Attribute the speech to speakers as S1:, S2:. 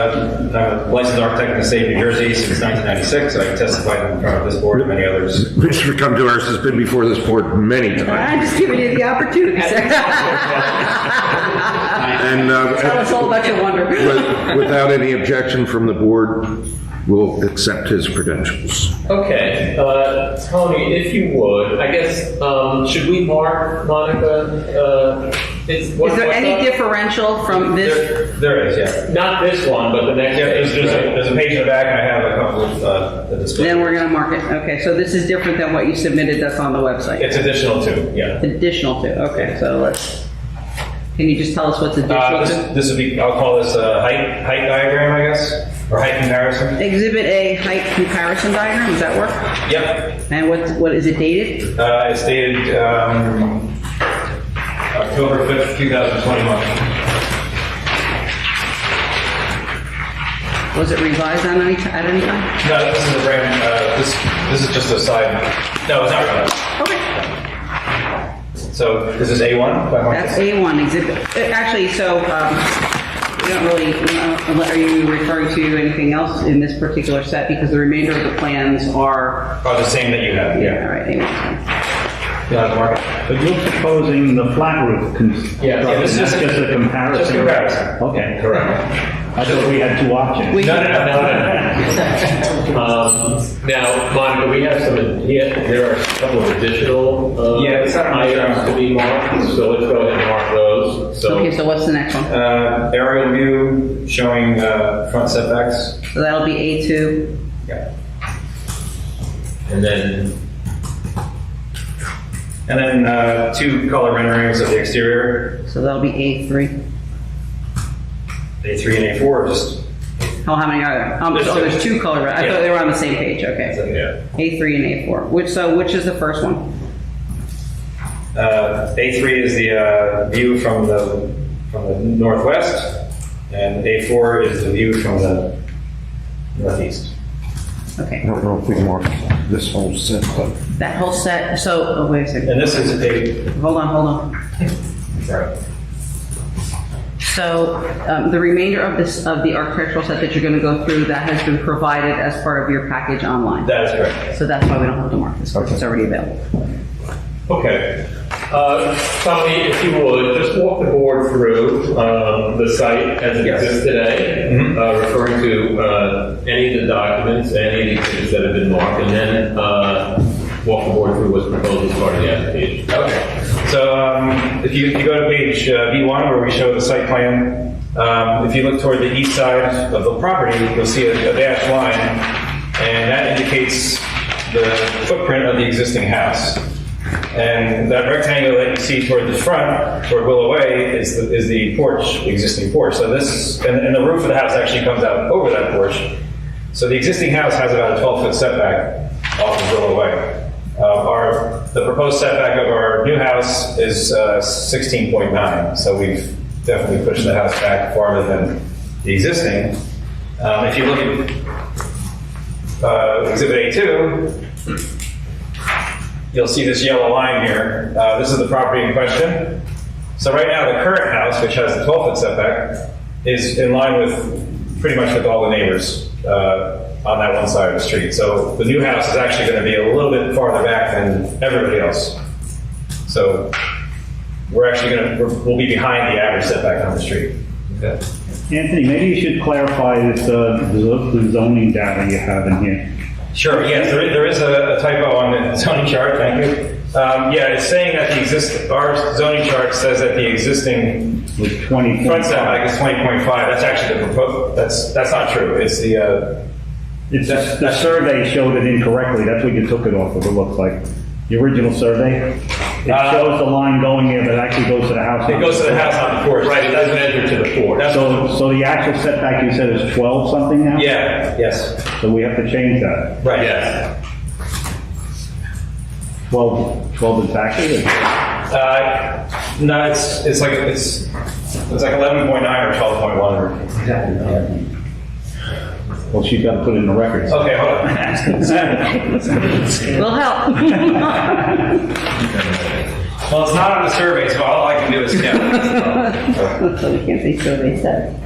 S1: Uh, I'm a licensed architect in the state of New Jersey since 1996. I testified in front of this board and many others.
S2: Mr. Comdoris has been before this board many times.
S3: I'm just giving you the opportunity, sir.
S2: And uh,
S3: Tell us all about your wonder.
S2: with- without any objection from the board, we'll accept his credentials.
S4: Okay, uh, Tony, if you would, I guess, um, should we mark Monica? uh, Is
S3: Is there any
S4: difference?
S3: differential from this?
S1: There there is, yeah.
S4: Not this one, but the next.
S1: Yeah, there's, there's a,
S4: right?
S1: there's a page in the back, and I have a couple of uh, the display.
S3: Then we're gonna mark it. Okay, so this is different than what you submitted that's on the website.
S1: It's additional too, yeah.
S3: Additional to, okay, so let's, can you just tell us what's
S1: Uh,
S3: additional
S1: this,
S3: to?
S1: this would be, I'll call this a height, height diagram, I guess, or height comparison.
S3: Exhibit A height comparison diagram, does that work?
S1: Yep,
S3: And what, what is it dated?
S1: uh, it's dated, um, October 5th, 2021.
S3: Was it revised on any, at any time?
S1: No, this is a brand, uh, this, this is just a side, no, it's not right.
S3: Okay.
S1: So this is A1? by Marcus?
S3: That's A1 exhibit. uh, Actually, so, um, we don't really, we don't- are you referring to anything else in this particular set? Because the remainder of the plans are,
S1: Oh, the same that you have,
S3: yeah,
S1: yeah.
S3: all right, A1.
S1: Yeah, Mark.
S5: But you're proposing the flat roof construction,
S4: Yeah, yeah, this
S5: that's
S4: is
S5: just
S4: a-
S5: a
S1: Just
S5: comparison.
S1: correct.
S5: Okay,
S1: Correct.
S5: I thought we had two options.
S3: We-
S1: No, no, no, no, no, no.
S4: Um, Now, Monica, we have some, yeah, there are a couple of additional uh,
S1: Yeah, it's not-
S4: items to be marked, so let's go ahead and mark those.
S3: Okay, so what's the next one?
S1: Uh, aerial view showing uh, front setbacks.
S3: So that'll be A2.
S1: Yeah.
S4: And then,
S1: And then uh, two color renderings of the exterior,
S3: So that'll be A3.
S1: A3 and A4, just
S3: Oh, how many are there? Um,
S1: There's
S3: oh,
S1: two.
S3: there's two color, I
S1: Yeah.
S3: thought they were on the same page, okay.
S1: yeah.
S3: A3 and A4. Which, so which is the first one?
S1: Uh, A3 is the uh, view from the from the northwest, and A4 is the view from the northeast.
S2: I
S3: Okay,
S2: don't know if we marked this whole set, but
S3: that whole set, so, oh, wait a second,
S1: And this is a
S3: hold on, hold on.
S1: sorry.
S3: So um, the remainder of this, of the architectural set that you're going to go through, that has been provided as part of your package online.
S1: That is correct.
S3: So that's why we don't have to mark this, because it's already available.
S4: okay. Uh, Tony, if you would, just walk the board through um, the site as it
S1: Yes.
S4: exists today,
S1: Mhm.
S4: uh, referring to uh, any of the documents, any of the things that have been marked, and then uh, walk the board through what's proposed as part of the application.
S1: Okay. So um, if you, if you go to page uh, B1 where we show the site plan, um, if you look toward the east side of the property, you'll see a, a dashed line, and that indicates the footprint of the existing house. And that rectangle that you see toward the front, toward Willow Way, is the, is the porch, existing porch. So this, and, and the roof of the house actually comes out over that porch. So the existing house has about a 12-foot setback off of Willow Way. Uh, Our, the proposed setback of our new house is uh, 16.9, so we've definitely pushed the house back farther than the existing. Um, If you look at uh, Exhibit A2, you'll see this yellow line here. Uh, This is the property in question. So right now, the current house, which has the 12-foot setback, is in line with, pretty much with all the neighbors uh, on that one side of the street. So the new house is actually going to be a little bit farther back than everybody else. So we're actually going to, we'll be behind the average setback on the street.
S5: Anthony, maybe you should clarify this, uh, zo- the zoning data you have in here.
S1: Sure, yes, there is, there is a a typo on the zoning chart, thank you. Um, Yeah, it's saying that the exist, our zoning chart says that the existing
S5: With 20.
S1: front setback is 20.5. That's actually the proposed, that's, that's not true. It's the, uh,
S5: It's, just- the survey showed it incorrectly, that's what you took it off of, it looks like. The original survey,
S1: Uh,
S5: it shows the line going there, but it actually goes to the house.
S1: it goes to the house on the porch.
S4: Right, it doesn't enter to the board.
S1: That's
S5: So, so the actual setback you said is 12 something now?
S1: Yeah, yes,
S5: So we have to change that.
S1: right,
S4: Yes.
S5: 12, 12 exactly? or-
S1: Uh, no, it's, it's like, it's, it's like eleven point nine or twelve point one or.
S5: Well, she's got to put it in the records.
S1: Okay, hold on.
S3: Will help.
S1: Well, it's not on the survey, so all I can do is count.
S3: So we can't say survey set.